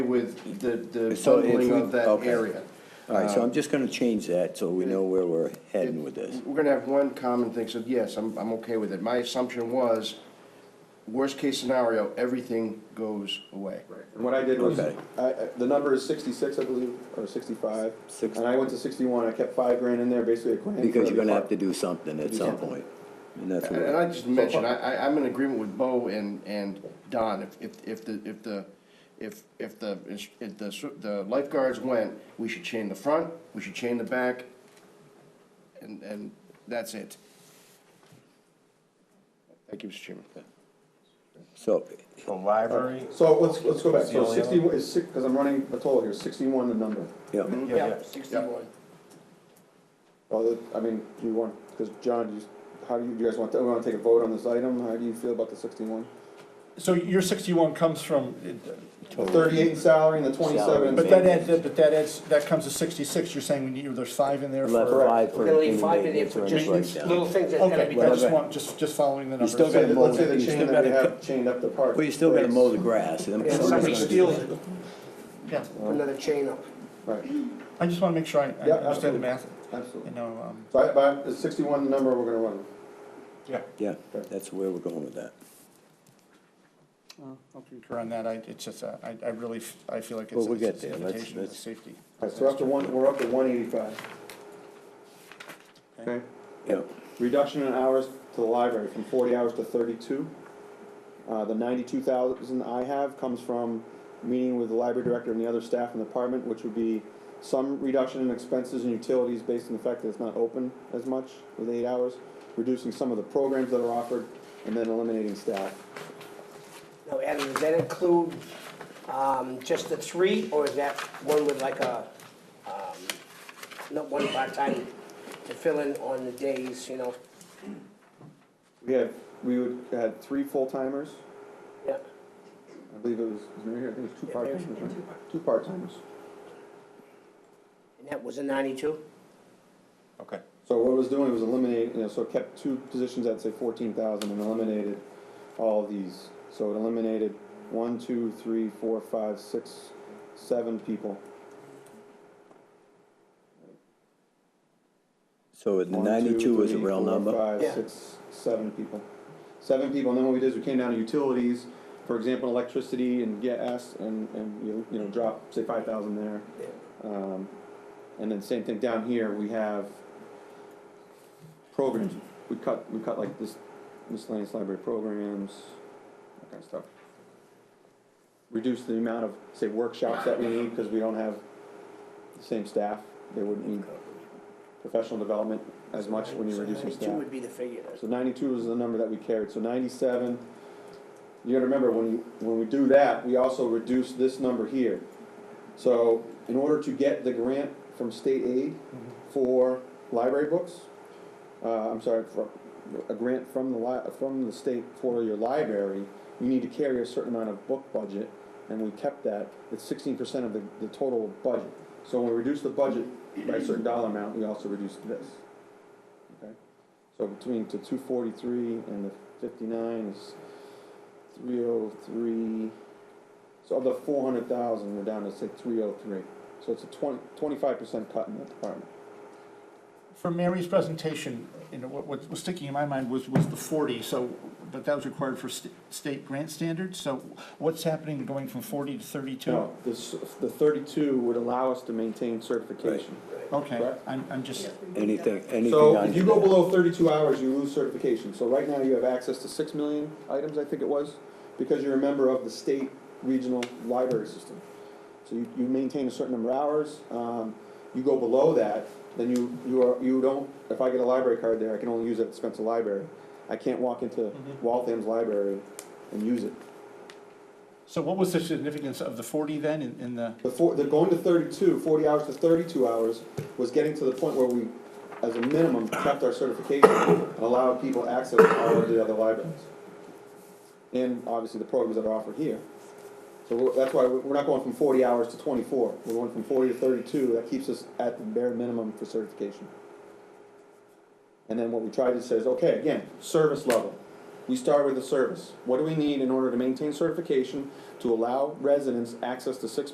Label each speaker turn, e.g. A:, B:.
A: with the, the
B: So if
A: bundling
B: we-
A: of that
B: okay.
A: area.
B: All right, so I'm just gonna change that, so we know where we're heading with this.
A: We're gonna have one common thing, so yes, I'm, I'm okay with it. My assumption was, worst case scenario, everything goes away.
C: And what I did was, I,
B: Okay.
C: I- the number is sixty-six, I believe, or sixty-five.
B: Six-
C: And I went to sixty-one, I kept five grand in there, basically a grand.
B: Because
C: for
B: you're gonna have
C: every
B: to do something at some point, and that's
A: And and I
B: what,
A: just mentioned, I, I, I'm in agreement with Bo and, and Don, if, if, if the, if the, if, if the, if the, s- the lifeguards went, we should chain the front, we should chain the back, and, and that's it. Thank you, Mr. Chairman.
B: so,
D: The library?
C: part. So let's, let's go back,
D: the
C: so
D: only other?
C: sixty-one is six, because I'm running a total here, sixty-one the number.
B: yeah,
D: Yeah,
A: sixty-one.
C: Well, the- I mean, do you want, because John, you, how do you, you guys want, to- we wanna take a vote on this item, how do you feel about the sixty-one?
D: So your sixty-one comes from,
C: Thirty-eight in salary and the twenty-seven. in
D: but that
C: maintenance.
D: adds, but that adds, that comes to sixty-six, you're saying we need, there's five in there
B: left
D: for.
B: five for
E: We're gonna leave
B: any
E: five in there
B: maintenance or
E: for
B: any
E: just
B: breakdown.
E: little things that gotta be
D: Okay, I
E: done.
D: just want, just, just following the numbers.
B: still
C: Say that- Let's say
B: mow
C: the
B: the- you
C: chain
B: still
C: that we
B: gotta
C: have chained up the park.
B: Well, you still gotta
C: breaks.
B: mow the grass, and
E: Yeah,
B: somebody's
E: somebody
B: gonna-
E: steals it,
D: Yeah,
E: put another chain up.
C: Right,
D: I just wanna make sure I, I
C: Yeah,
D: understand the math,
C: absolutely.
D: you know, um,
C: So I, but the sixty-one number we're gonna run.
D: yeah,
B: Yeah, that's where we're going with that.
D: I'll concur on that, I, it's just, uh, I, I really, f- I feel like it's.
B: Well, we'll
D: it's-
B: get
D: it's
B: there.
D: a
B: Let's-
D: limitation of
B: let's-
D: Safety.
C: All right, so up to one, we're up to one eighty-five. Okay,
B: Yeah,
C: reduction in hours to the library from forty hours to thirty-two. Uh, the ninety-two thousand I have comes from meeting with the library director and the other staff in the department, which would be some reduction in expenses and utilities based on the fact that it's not open as much with eight hours, reducing some of the programs that are offered, and then eliminating staff.
E: Now, Adam, does that include, um, just the three, or is that one with like a, um, not one part-time to fill in on the days, you know?
C: We had, we would, had three full-timers,
E: Yeah,
C: I believe it was, was it right here? I think it was two
E: Yeah, there-
C: part-timers, right? Two part-timers.
E: and that was a ninety-two?
D: Okay.
C: So what it was doing was eliminating, you know, so it kept two positions at say fourteen thousand and eliminated all these. So it eliminated one, two, three, four, five, six, seven people.
B: so the
C: One, two,
B: ninety-two is a
C: three,
B: real
C: four,
B: number,
C: five,
E: Yeah.
C: six, seven people. Seven people, and then what we did is we came down to utilities, for example, electricity and gas, and, and you, you know, drop, say, five thousand there. Um, and then same thing down here, we have programs, we cut, we cut like this miscellaneous library programs, that kind of stuff. Reduce the amount of, say, workshops that we need, because we don't have the same staff, they wouldn't need professional development as much when you're
E: So
C: reducing
E: Ninety-two
C: staff.
E: would be the figure.
C: So ninety-two was the number that we carried, so ninety-seven, you gotta remember, when, you- when we do that, we also reduce this number here. So, in order to get the grant from state aid for library books, uh, I'm sorry, for a grant from the li- from the state for your library, you need to carry a certain amount of book budget, and we kept that, it's sixteen percent of the, the total budget. So when we reduce the budget by a certain dollar amount, we also reduce this. Okay? So between the two forty-three and the fifty-nine is three oh three, so of the four hundred thousand, we're down to say three oh three. So it's a twenty, twenty-five percent cut in that department.
D: From Mary's presentation, you know, what, what was sticking in my mind was, was the forty, so, but that was required for st- state grant standards, so what's happening going from forty to thirty-two?
C: No, this, the thirty-two would allow us to maintain certification.
D: Okay,
C: Correct.
D: I'm, I'm just,
B: anything, anything
C: So if
B: under
C: you go
B: that.
C: below thirty-two hours, you lose certification. So right now you have access to six million items, I think it was, because you're a member of the state regional library system. So you, you maintain a certain number of hours, um, you go below that, then you, you are, you don't, if I get a library card there, I can only use it at Spencer Library. I can't walk into Waltham's library and use it.
D: so what was the significance of the forty then in, in the,
C: The four, the going to 32, 40 hours to thirty-two hours, was getting to the point where we, as a minimum, kept our certification and allowed people access to all of the other libraries. And obviously the programs that are offered here. So we're- that's why we're we're not going from forty hours to twenty-four, we're going from forty to thirty-two, that keeps us at the bare minimum for certification. And then what we try to say is, okay, again, service level. We start with the service. What do we need in order to maintain certification to allow residents access to six